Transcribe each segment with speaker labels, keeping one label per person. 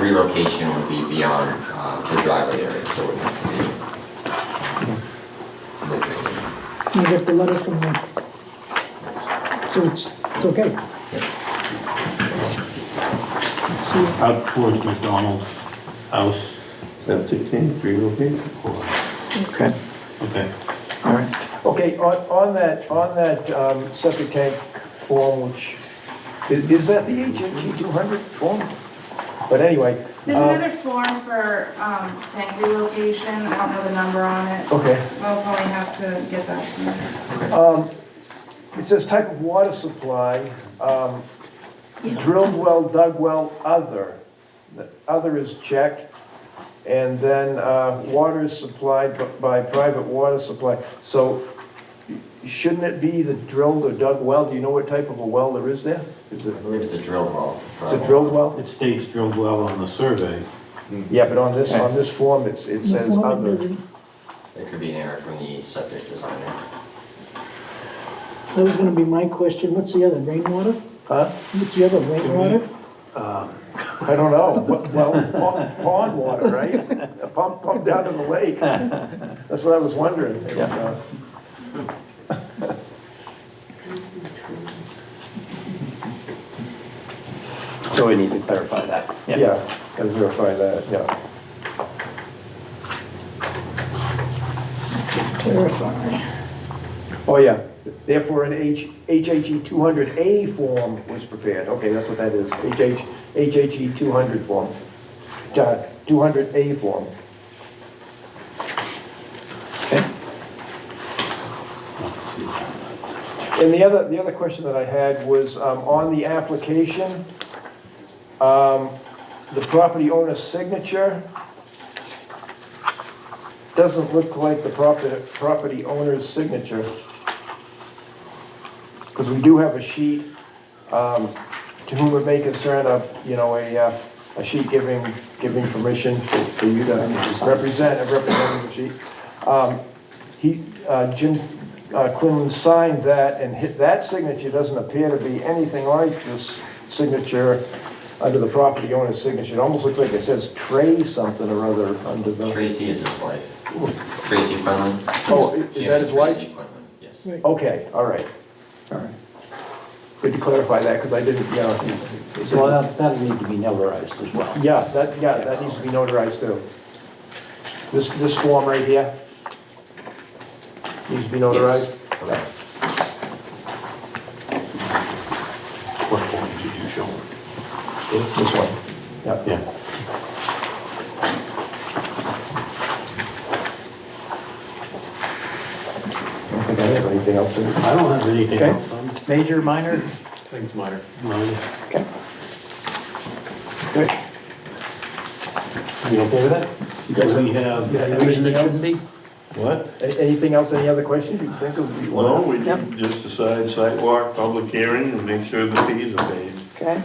Speaker 1: relocation would be beyond uh, the driveway area, so. it would have to be-
Speaker 2: You get the letter from the, so it's, it's okay. So,
Speaker 3: out towards McDonald's house.
Speaker 4: Septic tank relocated.
Speaker 5: Okay,
Speaker 3: Okay.
Speaker 5: all right.
Speaker 6: Okay, on, on that, on that um, septic tank form, which, is, is that the HNG two hundred form? But anyway.
Speaker 7: There's
Speaker 6: um,
Speaker 7: another form for um, tank relocation, I don't know the number on it.
Speaker 6: uh, Okay.
Speaker 7: We'll probably have to get that to you.
Speaker 6: It says type of water supply, um, drilled well, dug well, other. The Other is checked, and then uh, water is supplied b- by private water supply. So shouldn't it be the drilled or dug well? Do you know what type of a well there is there? Is it,
Speaker 1: I believe it's a drill well.
Speaker 6: it's a drilled well?
Speaker 3: It states drilled well on the survey.
Speaker 6: Yeah, but on this, on this form, it's, it
Speaker 2: the
Speaker 6: says
Speaker 2: form it
Speaker 6: other.
Speaker 2: doesn't-
Speaker 1: It could be an error from the subject designer.
Speaker 2: That was gonna be my question, what's the other, rainwater?
Speaker 6: Huh?
Speaker 2: What's the other, rainwater?
Speaker 6: I don't know. What- Well, pond- pond water, right? Pump, pump down to the lake. That's what I was uh, wondering.
Speaker 5: Yeah.
Speaker 4: So we need to clarify that.
Speaker 6: Yeah, gotta verify that, yeah.
Speaker 2: Clarify.
Speaker 6: Oh, yeah, therefore an H, E HHE 200A form was prepared, okay, that's what that is, HH, HHE 200 E form. Uh, 200A form. And the other, the other question that I had was, um, on the application, um, the property owner's signature doesn't look like the property, property owner's signature. Because we do have a sheet, um, to whom it may concern, a, you know, a, uh, a sheet giving, giving permission for for you to represent, a representative sheet. Um, He, uh, Jim uh, Quinlan signed that, and hit, that signature doesn't appear to be anything like this signature under the property owner's signature. It almost looks like it says Trey something or other under the.
Speaker 1: Tracy is his wife. Tracy Quinlan.
Speaker 6: Oh, i- is that his wife?
Speaker 1: Tracy Quinlan, yes.
Speaker 2: Right.
Speaker 6: Okay, all right.
Speaker 4: All right.
Speaker 6: Good to clarify that, because I didn't, yeah.
Speaker 4: So that, that'll need to be notarized as well.
Speaker 6: Yeah, that, yeah, that needs to be notarized too. This, this form right here needs to be notarized.
Speaker 1: Correct.
Speaker 3: What form did you show? This?
Speaker 6: This one, yeah.
Speaker 3: Yeah.
Speaker 6: I don't think I have anything else to
Speaker 3: I don't have anything
Speaker 4: Okay.
Speaker 3: else. I'm-
Speaker 4: Major, minor?
Speaker 3: no.
Speaker 4: Okay.
Speaker 6: Good.
Speaker 3: You okay with that? Do we have anything
Speaker 4: Anything
Speaker 3: else?
Speaker 4: else?
Speaker 8: What?
Speaker 6: A- Anything else, any other questions you think of? you
Speaker 8: No,
Speaker 6: wanna-
Speaker 8: we just decide sidewalk, public hearing, and make sure the fees are paid.
Speaker 4: Okay.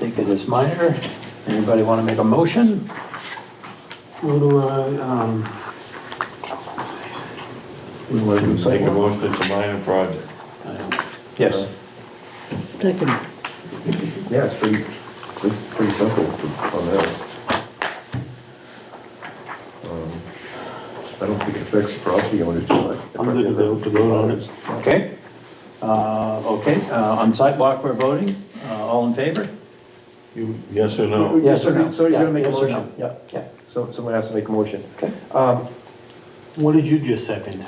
Speaker 4: Take it as minor. Anybody want to make a motion?
Speaker 3: What do I, um,
Speaker 6: We wanna do
Speaker 8: Make a
Speaker 6: something?
Speaker 8: motion, it's a minor project.
Speaker 3: I don't,
Speaker 4: Yes.
Speaker 2: Second,
Speaker 6: Yeah, it's pretty, it's pretty simple on that. Um, I don't think it affects the property owners too much.
Speaker 3: I'm good to go, to vote on it.
Speaker 4: Okay. Uh, okay, uh, on sidewalk, we're voting. Uh, all in favor?
Speaker 8: You, yes or no?
Speaker 4: Yes or no?
Speaker 6: So he's gonna make a
Speaker 4: Yeah, yes or no.
Speaker 6: motion, yeah.
Speaker 4: Yeah.
Speaker 6: So someone has to make a motion.
Speaker 4: Okay.
Speaker 6: Um,
Speaker 3: What did you just second?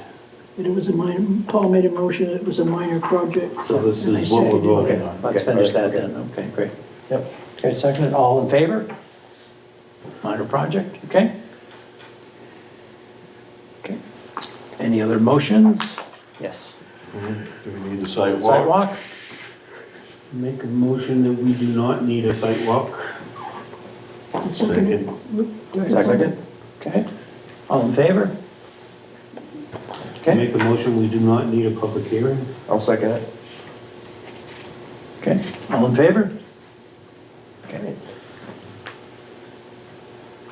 Speaker 2: but it was a minor, Paul made a motion, it was a minor project.
Speaker 3: So this
Speaker 2: And I
Speaker 3: is what we're
Speaker 2: seconded it.
Speaker 3: voting on.
Speaker 4: Let's
Speaker 6: Okay,
Speaker 4: finish
Speaker 6: all
Speaker 4: that
Speaker 6: right,
Speaker 4: then. Okay, great.
Speaker 6: Yep.
Speaker 4: Okay, seconded. All in favor? Minor project, okay? Okay. Any other motions? Yes.
Speaker 8: Do we need a sidewalk?
Speaker 4: Sidewalk?
Speaker 3: Make a motion that we do not need a site walk.
Speaker 2: Seconded. Go ahead.
Speaker 4: Okay. All in favor? Okay,
Speaker 3: Make a motion, we do not need a public hearing.
Speaker 6: I'll second it.
Speaker 4: okay. All in favor? Okay.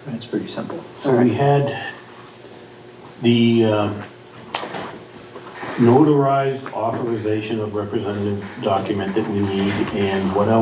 Speaker 4: That's pretty simple. All
Speaker 3: So we
Speaker 4: right.
Speaker 3: had the um, notarized authorization of representative document that we need, and what else?